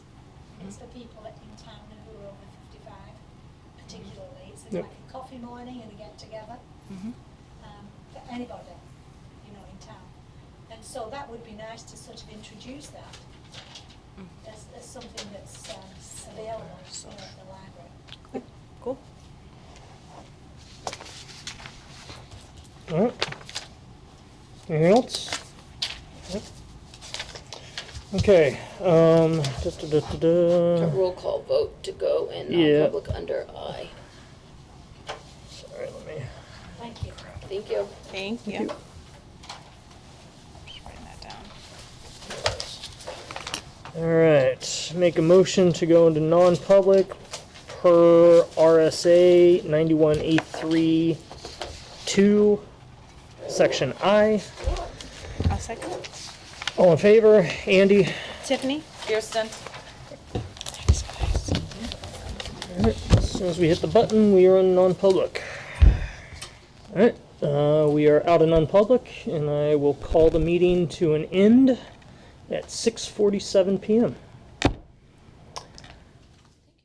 it's for people in town who are over fifty-five particularly. It's Yep. like a coffee morning and a get-together Mhm. um, for anybody, you know, in town. And so that would be nice to sort of introduce that as, as something that's um, available you know, at the library. Okay, Cool. All right. Anything else? Nope. Okay, um, da, da, da, A da, da. roll call vote to go in Mm. Yeah. non-public under I. Sorry, let me. Thank you. Thank you. Thank you. Just writing that down. All right, make a motion to go into non-public per RSA ninety-one A three two, section I. I'll second. All in favor? Andy? Tiffany? Kirsten? As soon as we hit the button, we are in non-public. Alright, uh, we are out of non-public, and I will call the meeting to an end at six forty-seven PM.